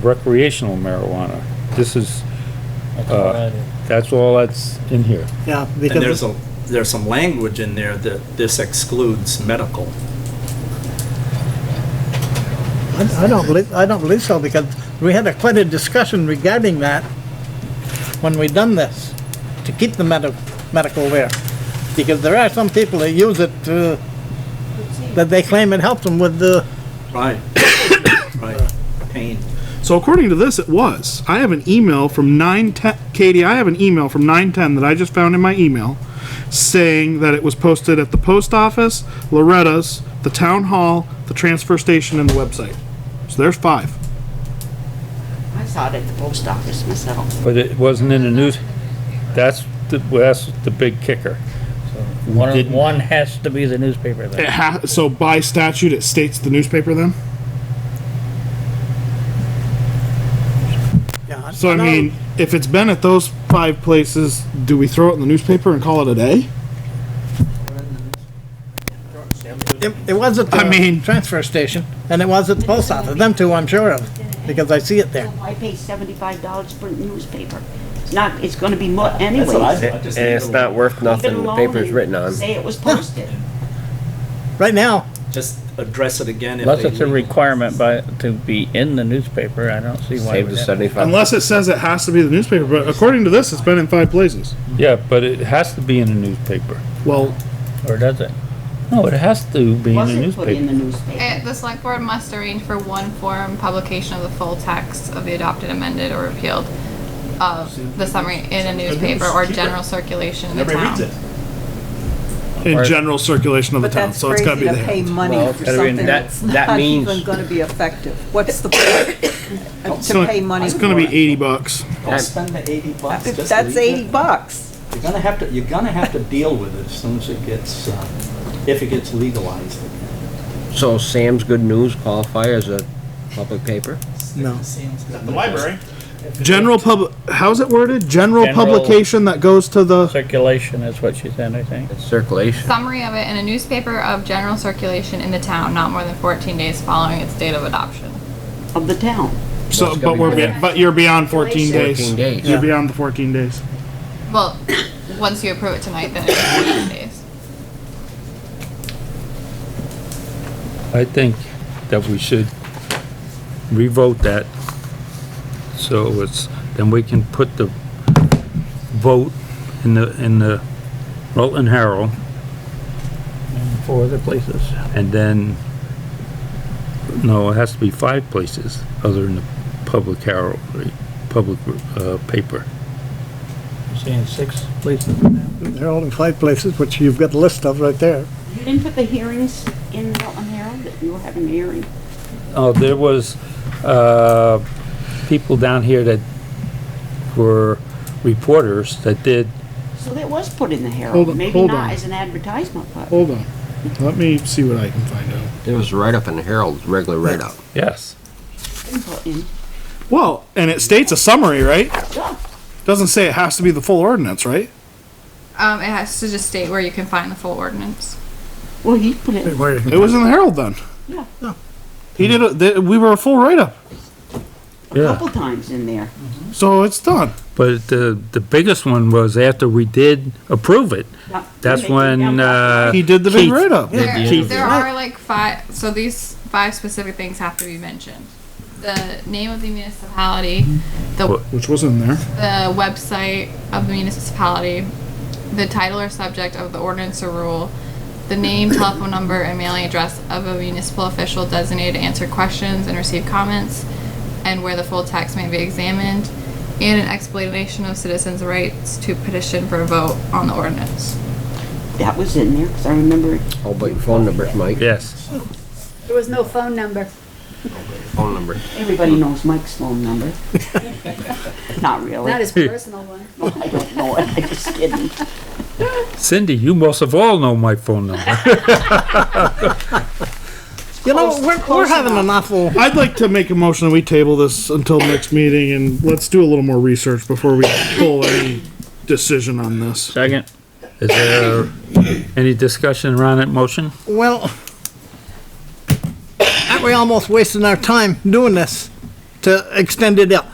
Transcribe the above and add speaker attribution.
Speaker 1: recreational marijuana. This is, uh, that's all that's in here.
Speaker 2: Yeah,
Speaker 3: And there's
Speaker 2: because,
Speaker 3: a, there's some language in there that this excludes medical.
Speaker 2: I I don't believe, I don't believe so, because we had a quite a discussion regarding that when we done this, to keep the medical, medical there. Because there are some people that use it to, that they claim it helps them with the,
Speaker 3: Right. Right. Pain.
Speaker 4: So according to this, it was. I have an email from nine ten. Katie, I have an email from nine ten that I just found in my email, saying that it was posted at the post office, Loretta's, the town hall, the transfer station, and the website. So there's five.
Speaker 5: I saw it at the post office myself.
Speaker 1: But it wasn't in the news, that's the, that's the big kicker.
Speaker 6: One,
Speaker 1: Didn't-
Speaker 6: one has to be the newspaper
Speaker 4: It
Speaker 6: then.
Speaker 4: ha- so by statute, it states the newspaper. Then.
Speaker 2: yeah.
Speaker 4: So I mean, if it's been at those five places, do we throw it in the newspaper and call it a day?
Speaker 2: It, it was at
Speaker 4: I
Speaker 2: the
Speaker 4: mean-
Speaker 2: transfer station, and it was at the post office, them two, I'm sure of, because I see it there.
Speaker 5: I pay seventy-five dollars for a newspaper. It's not, it's gonna be more anyways.
Speaker 3: I just
Speaker 7: And it's
Speaker 3: leave it
Speaker 7: not
Speaker 3: alone.
Speaker 7: worth
Speaker 5: Even
Speaker 7: nothing, the
Speaker 5: alone
Speaker 7: paper's
Speaker 5: and
Speaker 7: written on.
Speaker 5: Say it was posted.
Speaker 2: Right now,
Speaker 3: Just address it again if
Speaker 6: Unless
Speaker 3: they
Speaker 6: it's a
Speaker 3: leave.
Speaker 6: requirement by, to be in the newspaper, I don't see why.
Speaker 7: Save
Speaker 6: we'd
Speaker 7: the
Speaker 6: have-
Speaker 7: seventy-five.
Speaker 4: Unless it says it has to be the newspaper, but according to this, it's been in five places.
Speaker 1: Yeah, but it has to be in the newspaper.
Speaker 4: Well,
Speaker 6: Or does it?
Speaker 1: No, it has to be in the
Speaker 5: Wasn't put
Speaker 1: newspaper.
Speaker 5: in the newspaper.
Speaker 8: It, the select board must arrange for one form publication of the full text of the adopted, amended, or repealed of the summary in a newspaper or general circulation in the
Speaker 3: Nobody reads
Speaker 8: town.
Speaker 3: it.
Speaker 4: in
Speaker 6: Or-
Speaker 4: general circulation of the
Speaker 9: But
Speaker 4: town,
Speaker 9: that's
Speaker 4: so it's gotta
Speaker 9: crazy
Speaker 4: be
Speaker 9: to
Speaker 4: there.
Speaker 9: pay money
Speaker 7: Well,
Speaker 9: for
Speaker 7: I mean,
Speaker 9: something
Speaker 7: that-
Speaker 9: that's
Speaker 7: that
Speaker 9: not
Speaker 7: means-
Speaker 9: even gonna be effective. What's the point
Speaker 4: So
Speaker 9: to pay money
Speaker 4: It's
Speaker 9: for
Speaker 4: gonna be
Speaker 9: it?
Speaker 4: eighty bucks.
Speaker 3: Don't spend the eighty bucks.
Speaker 9: If
Speaker 3: just
Speaker 9: That's
Speaker 3: leave it.
Speaker 9: eighty bucks.
Speaker 3: You're gonna have to, you're gonna have to deal with it as soon as it gets, uh, if it gets legalized.
Speaker 7: So Sam's Good News qualify as a public paper?
Speaker 2: no.
Speaker 3: The library.
Speaker 4: General pub, how's it worded? General
Speaker 6: General-
Speaker 4: publication that goes to the,
Speaker 6: Circulation is what she said, I think.
Speaker 7: It's circulation.
Speaker 8: Summary of it in a newspaper of general circulation in the town, not more than fourteen days following its date of adoption.
Speaker 5: Of the town.
Speaker 4: so,
Speaker 7: it's
Speaker 4: but
Speaker 7: gotta
Speaker 4: we're,
Speaker 7: be-
Speaker 4: be- but you're beyond fourteen days.
Speaker 7: Fourteen days.
Speaker 4: You're beyond the fourteen days.
Speaker 8: Well, once you approve it tonight, then it's fourteen days.
Speaker 1: I think that we should revote that. So it's, then we can put the vote in the, in the Rutland Herald.
Speaker 6: Four other places.
Speaker 1: And then, no, it has to be five places other than the public herald, right, public, uh, paper.
Speaker 6: You're Seeing six places.
Speaker 2: They're all in five places, which you've got a list of right there.
Speaker 5: You didn't put the hearings in the Rutland Herald, that you were having a hearing?
Speaker 1: Oh, there was, uh, people down here that were reporters that did,
Speaker 5: So that was put in the
Speaker 4: Hold
Speaker 5: Herald,
Speaker 4: on-
Speaker 5: maybe
Speaker 4: hold
Speaker 5: not
Speaker 4: on.
Speaker 5: as an advertisement, but
Speaker 4: Hold on. Let me see what I can find out.
Speaker 7: It was right up in the Herald, regular write-up.
Speaker 1: yes.
Speaker 5: it's put in.
Speaker 4: Well, and it states a summary, right?
Speaker 5: Yeah.
Speaker 4: Doesn't say it has to be the full ordinance, right?
Speaker 8: Um, it has to just state where you can find the full ordinance.
Speaker 5: Well, he put it,
Speaker 4: It was in the Herald then.
Speaker 5: yeah,
Speaker 4: He did, a- th- we were a full write-up,
Speaker 5: a couple times in there.
Speaker 4: so it's done.
Speaker 1: But the, the biggest one was after we did approve it,
Speaker 5: Yeah.
Speaker 1: that's
Speaker 5: They came down
Speaker 1: when,
Speaker 5: the-
Speaker 1: uh.
Speaker 4: He did the big
Speaker 1: Keith-
Speaker 4: write-up.
Speaker 8: There,
Speaker 1: Keith-
Speaker 8: there are like five, so these five specific things have to be mentioned. The name of the municipality, the
Speaker 4: Which was in there.
Speaker 8: the website of the municipality, the title or subject of the ordinance or rule, the name, telephone number, and mailing address of a municipal official designated to answer questions and receive comments, and where the full text may be examined, and an explanation of citizens' rights to petition for a vote on the ordinance.
Speaker 5: That was in there, because I remember it.
Speaker 7: Oh, but your phone number, Mike,
Speaker 1: Yes,
Speaker 10: There was no phone number.
Speaker 7: phone number.
Speaker 5: Everybody knows Mike's phone number. Not really.
Speaker 10: Not his personal one.
Speaker 5: I don't know it. I'm just kidding.
Speaker 1: Cindy, you most of all know my phone number.
Speaker 2: You know,
Speaker 5: Close-
Speaker 2: we're, we're
Speaker 5: close
Speaker 2: having an awful,
Speaker 4: I'd like to make a motion that we table this until next meeting and let's do a little more research before we pull any decision on this.
Speaker 6: Second.
Speaker 1: Is there any discussion around that motion?
Speaker 2: well, aren't we almost wasting our time doing this? to extend it out.